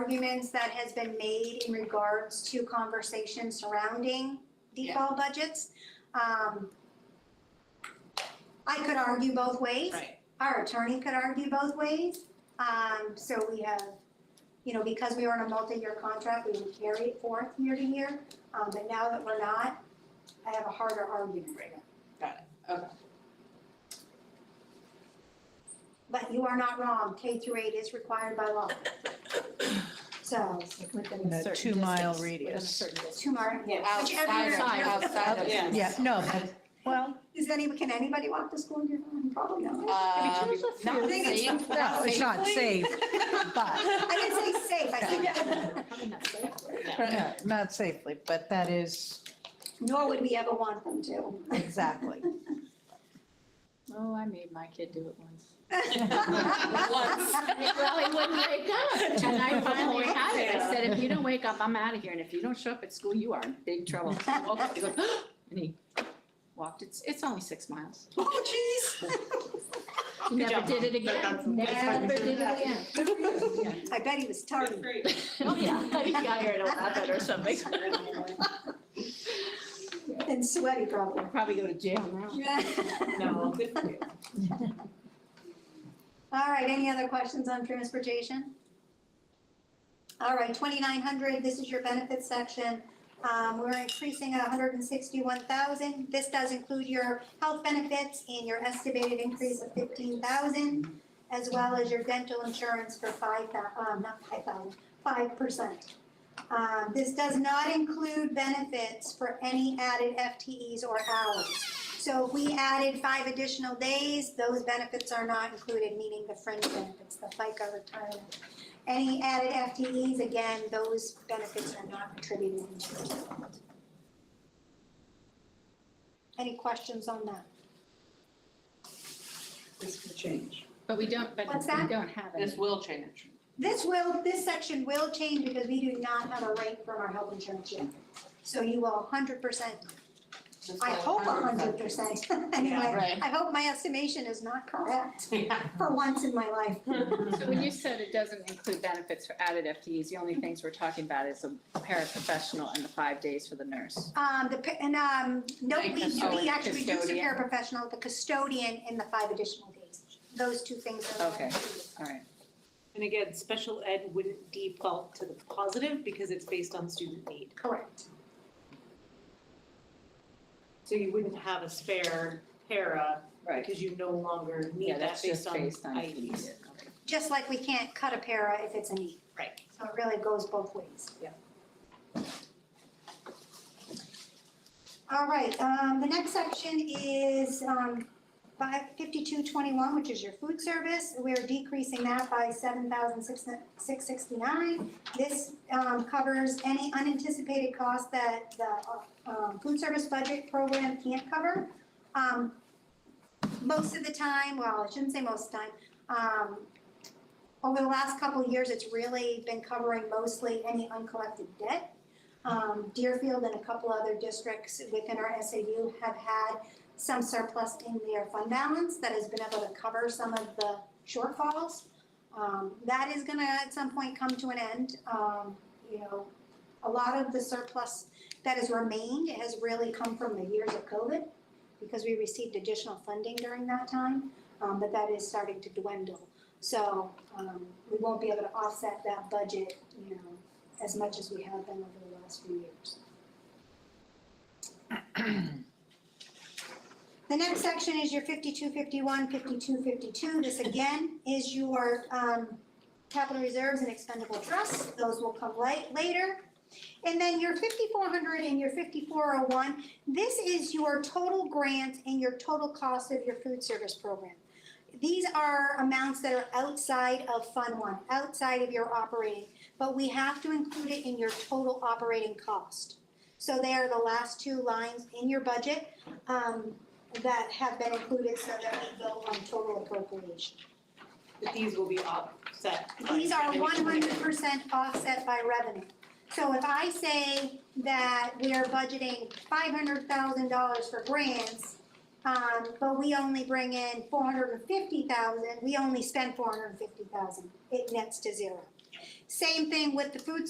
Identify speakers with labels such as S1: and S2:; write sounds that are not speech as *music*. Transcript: S1: arguments that has been made in regards to conversation surrounding default budgets. Um, I could argue both ways.
S2: Right.
S1: Our attorney could argue both ways. Um, so we have, you know, because we were on a multi-year contract, we would carry it forth year to year. Um, but now that we're not, I have a harder argument.
S2: Right. Got it, okay.
S1: But you are not wrong, K through eight is required by law. So,
S3: In a two-mile radius.
S1: two more,
S4: Yeah,
S1: Which every
S4: outside
S1: year-
S4: of- outside of-
S2: Yeah.
S3: Yeah, no, but, well,
S1: Is any, can anybody walk to school in your home? Probably not.
S2: Um,
S4: Um,
S2: not
S4: not
S1: think it's-
S4: safe,
S3: no, it's not safe, but,
S1: I didn't say safe, I
S2: *laughs*
S1: said,
S3: no, *laughs* not safely, but that is
S1: *laughs* nor would we ever want them to.
S3: exactly.
S4: Oh, I made my kid do it once.
S2: Once.
S1: *laughs*
S4: Well, he wouldn't wake up, and I finally had it, I said, if you don't wake up, I'm out of here, and if you don't show up at school, you are in big trouble. So I woke up, he goes, *gasps* and he walked, it's, it's only six miles.
S2: Oh,
S4: He
S2: Good
S4: Never
S2: job,
S4: did it again, never did it again.
S1: I bet he was
S2: jeez.
S1: tardy.
S4: Oh, yeah, *laughs* he got here at eleven or something.
S1: And sweaty
S4: *laughs*
S1: probably. *laughs*
S4: Probably go to jail now.
S2: No, good for you.
S1: All right, any other questions on transportation? All right, twenty-nine hundred, this is your benefits section. Um, we're increasing a hundred and sixty-one thousand. This does include your health benefits and your estimated increase of fifteen thousand, as well as your dental insurance for five thou- um, not five thousand, five percent. Um, this does not include benefits for any added FTEs or hours. So if we added five additional days, those benefits are not included, meaning the fringe benefits, the FICA retirement. Any added FTEs, again, those benefits are not attributed. Any questions on that?
S5: This could change.
S4: But we don't, but
S1: What's
S4: we
S1: that?
S4: don't have
S2: This
S4: it.
S2: will change.
S1: This will, this section will change because we do not have a rate from our health insurance yet. So you will hundred percent,
S2: This
S1: I
S2: will
S1: hope hundred percent, *laughs* anyway,
S2: right.
S1: I hope my estimation is not correct
S2: Yeah.
S1: for once in my life.
S4: So when you said it doesn't include benefits for added FTEs, the only things we're talking about is a paraprofessional and the five days for the nurse.
S1: Um, the, pa- and, um, no, we,
S2: Like custodian.
S1: we actually reduced the
S4: Custodian.
S1: paraprofessional, the custodian, and the five additional days. Those two things are.
S4: Okay. All right.
S6: And again, special ed wouldn't default to the positive because it's based on student need.
S1: Correct.
S6: So you wouldn't have a spare para
S4: Right.
S6: because you no longer
S4: Yeah,
S6: need
S4: that's
S6: that
S4: just
S6: based on
S4: based on E. if you need
S6: IEPs.
S4: it. Okay.
S1: Just like we can't cut a para if it's a need.
S6: Right.
S1: So it really goes both ways.
S6: Yeah.
S1: All right, um, the next section is, um, five, fifty-two twenty-one, which is your food service. We're decreasing that by seven thousand six, six sixty-nine. This, um, covers any unanticipated costs that the, um, food service budget program can't cover. Um, most of the time, well, I shouldn't say most of the time, um, over the last couple of years, it's really been covering mostly any uncollected debt. Um, Deerfield and a couple other districts within our SAU have had some surplus in their fund balance that has been able to cover some of the shortfalls. Um, that is gonna at some point come to an end. Um, you know, a lot of the surplus that has remained has really come from the years of COVID because we received additional funding during that time, um, but that is starting to dwindle. So, um, we won't be able to offset that budget, you know, as much as we have been over the last few years. *clears throat* The next section is your 52, 51, 52, 52. This again is your, um, capital reserves and expendable trusts. Those will come late, later. And then your fifty-four hundred and your fifty-four oh one, this is your total grant and your total cost of your food service program. These are amounts that are outside of Fund One, outside of your operating, but we have to include it in your total operating cost. So they are the last two lines in your budget um, that have been included so that we go on total appropriation.
S6: But these will be offset. by
S1: These are one
S6: individual
S1: hundred percent offset by revenue. So if I say that we are budgeting five hundred thousand dollars for grants, um, but we only bring in four hundred and fifty thousand, we only spend four hundred and fifty thousand, it nets to zero. Same thing with the food